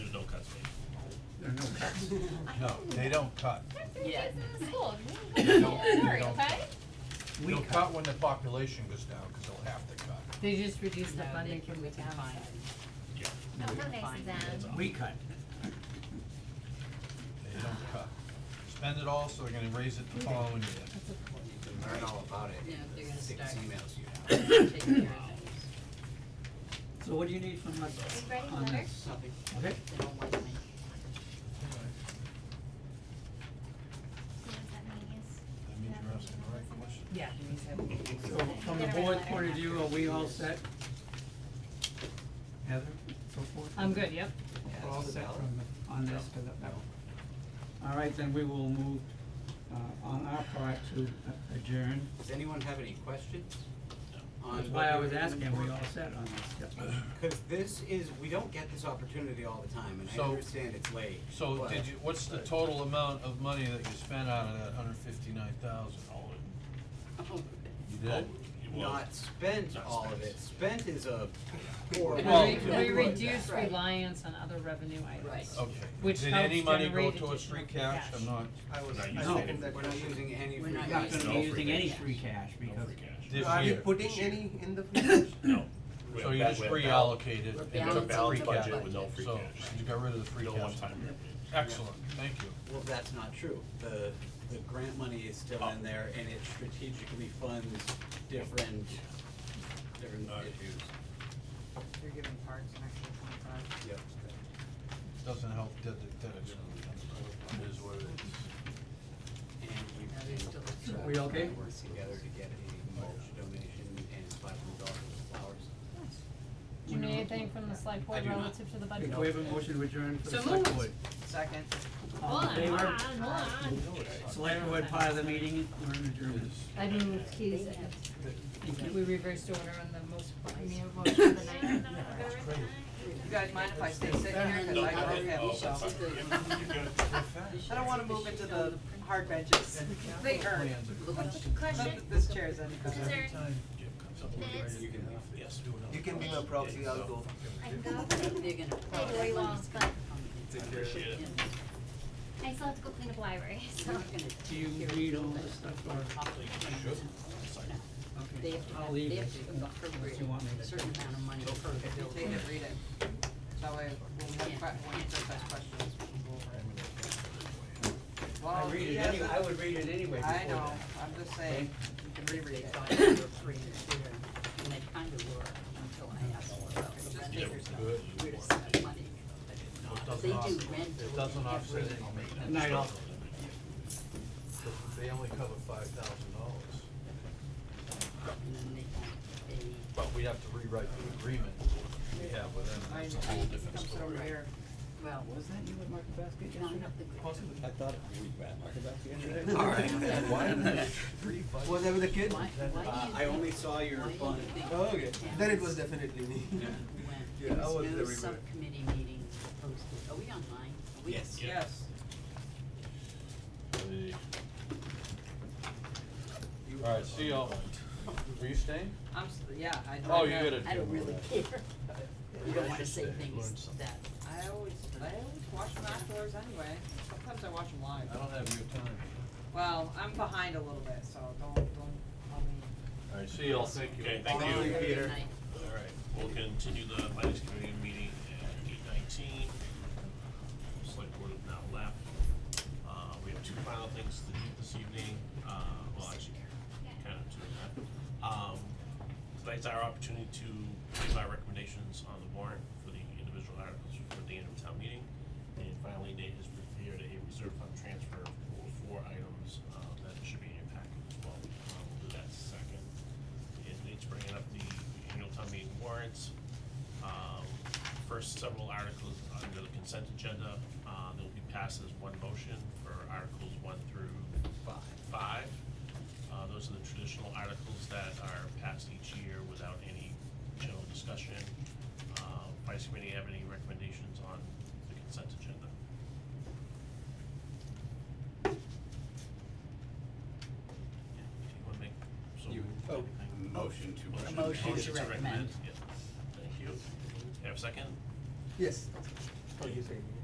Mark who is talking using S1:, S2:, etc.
S1: No, they don't cut.
S2: Yeah.
S3: Kids in the school.
S1: don't- they
S3: Sorry,
S1: don't.
S3: okay?
S1: They'll cut when the population goes down, cause they'll have to cut.
S4: They just reduced the
S2: No, they
S4: funding
S2: can
S4: from the
S2: be
S4: combined.
S3: No, we're nice to them.
S5: We cut.
S1: They don't cut. Spend it all, so they're gonna raise it the following year.
S6: Learn all about it.
S2: Yeah, they're gonna
S6: Six
S2: start.
S6: emails you have.
S2: Take care of things.
S5: So what do you need from us
S3: We ready,
S5: on
S3: letter?
S5: this? Okay,
S2: They don't like me.
S3: See what that means.
S1: That means you're asking the right question.
S4: Yeah.
S5: so from the board's point of view, are we all set? Heather, so forth?
S4: I'm good, yep.
S5: We're all set from, the- on this, 'cause that- that- All right, then we will move, uh, on our part to a- adjourn.
S6: Does anyone have any questions? on
S5: That's
S6: what
S5: why I
S6: you're
S5: was
S6: looking
S5: asking, we
S6: for?
S5: all set on this, yep.
S6: Cause this is, we don't get this opportunity all the time, and I
S1: So-
S6: understand it's late.
S1: So
S6: but-
S1: did you, what's the total amount of money that you spent out of that hundred fifty-nine thousand? You did?
S6: Not spent
S7: Not
S6: all of
S7: spent.
S6: it, spent is a poor.
S2: We
S1: Well-
S4: We, we
S6: word.
S4: reduced
S2: Right.
S4: reliance on other revenue
S2: Right.
S4: items.
S1: Okay.
S4: Which
S1: Did any
S4: helps
S1: money go
S4: generate
S1: towards
S4: additional
S1: free cash?
S4: cash.
S1: I'm not,
S8: I was,
S7: No,
S8: I
S7: you
S5: don't.
S8: second that
S6: We're not
S8: question.
S6: using any
S2: We're
S6: free
S2: not
S5: Not
S6: cash.
S5: gonna
S7: No
S5: be
S7: free
S5: using
S7: cash.
S5: any free cash
S7: No
S5: because
S7: free cash.
S1: This
S8: Are you
S1: year.
S8: putting any in the free cash?
S7: No.
S1: so you just reallocated
S2: We're
S1: and took the
S2: balancing
S1: free
S2: the
S1: cash.
S2: budget with no
S7: free
S1: So
S7: cash.
S1: you got rid of the free
S7: No
S1: cash.
S7: one-time revenue.
S1: Excellent, thank you.
S6: Well, that's not true. The, the grant money is still in there and it strategically funds different, different
S7: Alright.
S6: issues.
S9: You're giving parks an extra twenty-five.
S6: Yep.
S1: Doesn't help that, that that it's, it is what it is.
S6: And
S2: Now there's still a
S6: we.
S2: two.
S5: We okay?
S6: Work together to get a mulch donation and five hundred dollars of flowers.
S4: Do you need anything from the select board
S6: do not.
S4: relative to the
S5: we
S4: budget?
S5: we have a motion to adjourn for the
S4: So
S5: select
S4: moved.
S5: board.
S9: Second.
S5: All in favor?
S3: Come on, come on.
S5: Select board part of the meeting, we're in adjournment.
S4: I moved Katie's,
S5: Thank you.
S4: we reversed order on the most, I mean,
S3: Motion for the night.
S9: You guys mind if I stay sitting here, cause I don't
S7: Oh,
S9: have, so. I don't wanna move into the hard benches. They hurt. Not
S3: Question,
S9: that this chair's any better.
S3: is there,
S6: You can leave. Yes.
S8: You can be my proxy, I'll go.
S3: I can go,
S2: They're gonna.
S3: stay the way long, but
S6: Take care.
S3: I still have to go clean up library, so.
S5: Do you read all this stuff or?
S2: They
S5: Okay,
S2: have to,
S5: I'll
S2: have-
S5: leave
S2: they
S5: it
S2: have to
S5: unless you want me
S2: appropriate
S5: to.
S2: a certain amount of money per
S9: If you
S2: building.
S9: take it, read it. That way, when we have, que- when you first ask questions, we can go over it.
S5: I
S9: Well,
S5: read
S9: he
S5: it
S9: has
S5: anyway,
S9: a-
S5: I would read it anyway before
S9: I know,
S5: that.
S9: I'm just saying, you can reread
S2: They
S9: it.
S2: thought they were free and clear, and they kind of were until I asked them about the
S9: Just
S2: rent.
S9: take yourself.
S2: Where does that money go?
S1: It doesn't
S2: They do
S1: offset,
S2: rent
S1: it doesn't offset
S2: everything.
S1: any maintenance.
S5: Good night, all.
S1: They only cover five thousand dollars.
S2: And then they don't pay.
S1: But we'd have to rewrite the agreement we have with them,
S9: Mine
S1: that's a whole
S9: comes
S1: different story.
S9: over here.
S2: Well,
S5: Was that you at Market Basket
S2: no, not the.
S8: I thought we were at Market Basket yesterday.
S6: All right.
S8: Why did I-
S6: Whatever the kid,
S2: Why,
S6: uh,
S2: why
S6: I
S2: do you
S6: only
S2: think,
S6: saw your
S2: why do you
S6: bun.
S2: think
S8: Oh, okay,
S2: towns
S8: then it was definitely me.
S2: went-
S8: Yeah, I
S2: there
S8: was
S2: was no
S8: everywhere.
S2: subcommittee meeting posted, are we online? Are we-
S6: Yes.
S9: Yes.
S1: Alright, see y'all. Were you staying?
S9: I'm, s- yeah, I know.
S1: Oh,
S9: I
S1: you
S9: have-
S1: gotta
S2: I
S1: deal
S2: don't
S1: with
S2: really
S1: that.
S2: care, you don't wanna say
S1: Learn
S2: things
S1: something.
S2: that,
S9: I always, I always watch them afterwards anyway. Sometimes I watch them live.
S1: I don't have your time.
S9: Well, I'm behind a little bit, so don't, don't, I mean,
S1: Alright, see y'all, thank you.
S7: Okay, thank you.
S2: Good
S6: Peter.
S2: night.
S7: Alright, we'll continue the finance committee meeting at eight nineteen. Select board have now left. Uh, we have two final things to do this evening, uh, well, actually, kind of two and a half. Um, tonight's our opportunity to give our recommendations on the warrant for the individual articles for the annual town meeting. And finally, Nate has prepared a reserve fund transfer for four items, uh, that should be in your packet as well. Uh, we'll do that second and Nate's bringing up the annual town meeting warrants. Um, First several articles under the consent agenda, uh, they'll be passed as one motion for articles one through five. Uh, those are the traditional articles that are passed each year without any general discussion. Uh, Vice Committee have any recommendations on the consent agenda? Yeah, do you wanna make, so.
S6: You,
S7: Oh.
S6: motion to.
S2: A motion to
S7: Motion to
S2: recommend.
S7: recommend, yeah. Thank you. Have a second?
S8: Yes. Oh, you say.